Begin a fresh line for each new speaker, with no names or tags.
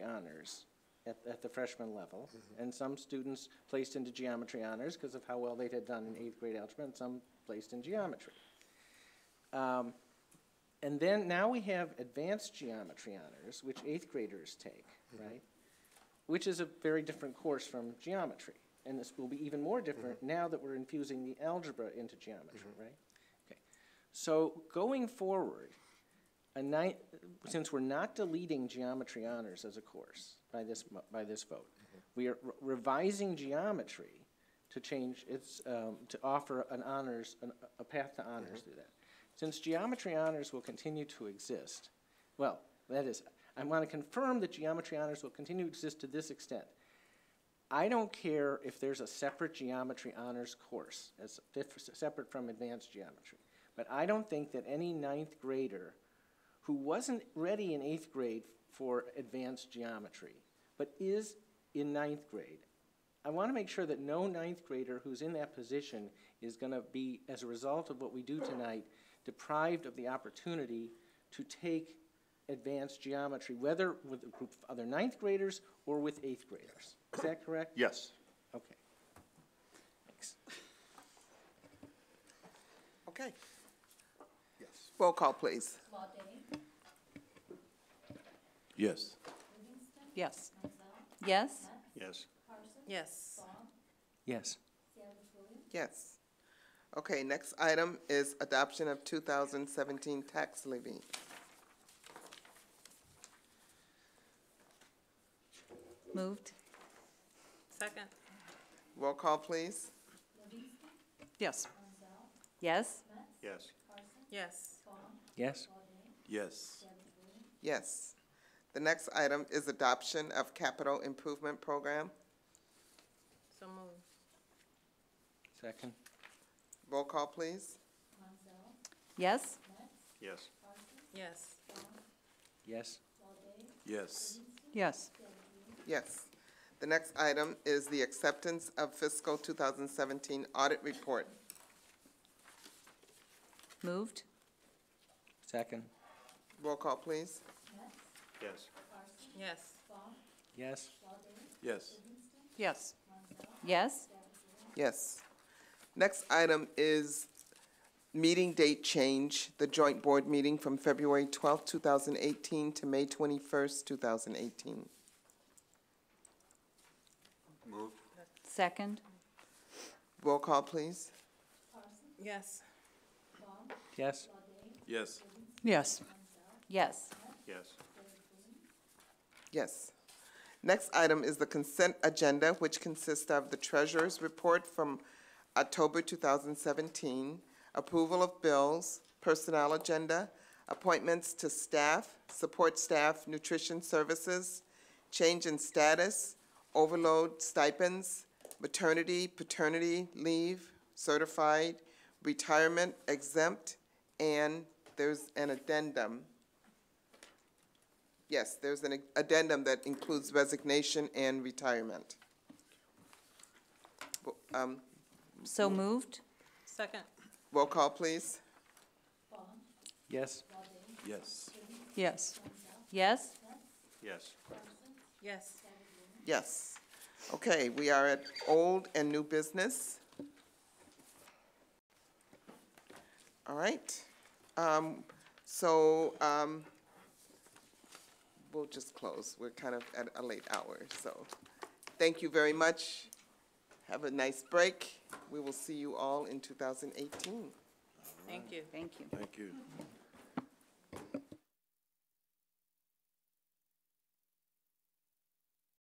at, at the freshman level, and some students placed into geometry honors because of how well they had done in eighth grade algebra, and some placed in geometry. Um, And then now we have advanced geometry honors, which eighth graders take, right? Which is a very different course from geometry. And this will be even more different now that we're infusing the algebra into geometry, right? Okay. So going forward, a ni- since we're not deleting geometry honors as a course by this, mo- by this vote, we are re- revising geometry to change its, um, to offer an honors, an- a path to honors through that. Since geometry honors will continue to exist, well, that is, I want to confirm that geometry honors will continue to exist to this extent. I don't care if there's a separate geometry honors course, as dif- separate from advanced geometry. But I don't think that any ninth grader who wasn't ready in eighth grade for advanced geometry, but is in ninth grade, I want to make sure that no ninth grader who's in that position is going to be, as a result of what we do tonight, deprived of the opportunity to take advanced geometry, whether with a group of other ninth graders or with eighth graders. Is that correct?
Yes.
Okay. Thanks.
Okay. Roll call, please.
Yes.
Yes. Yes?
Yes.
Yes.
Yes.
Yes. Okay, next item is adoption of 2017 tax levy.
Moved?
Second.
Roll call, please.
Yes. Yes?
Yes.
Yes.
Yes.
Yes.
Yes. The next item is adoption of capital improvement program.
So moved.
Second.
Roll call, please.
Yes?
Yes.
Yes.
Yes.
Yes.
Yes.
Yes. The next item is the acceptance of fiscal 2017 audit report.
Moved?
Second.
Roll call, please.
Yes.
Yes.
Yes.
Yes.
Yes. Yes?
Yes. Next item is meeting date change, the joint board meeting from February twelfth, two thousand eighteen to May twenty-first, two thousand eighteen.
Moved.
Second?
Roll call, please.
Yes.
Yes.
Yes.
Yes. Yes.
Yes.
Yes. Next item is the consent agenda, which consists of the treasurer's report from October two thousand seventeen, approval of bills, personnel agenda, appointments to staff, support staff, nutrition services, change in status, overload stipends, maternity, paternity leave, certified, retirement exempt, and there's an addendum. Yes, there's an addendum that includes resignation and retirement. Ro- um,
So moved?
Second.
Roll call, please.
Yes.
Yes.
Yes. Yes?
Yes.
Yes.
Yes. Okay, we are at old and new business. All right. Um, So um, we'll just close. We're kind of at a late hour, so thank you very much. Have a nice break. We will see you all in 2018.
Thank you.
Thank you.
Thank you.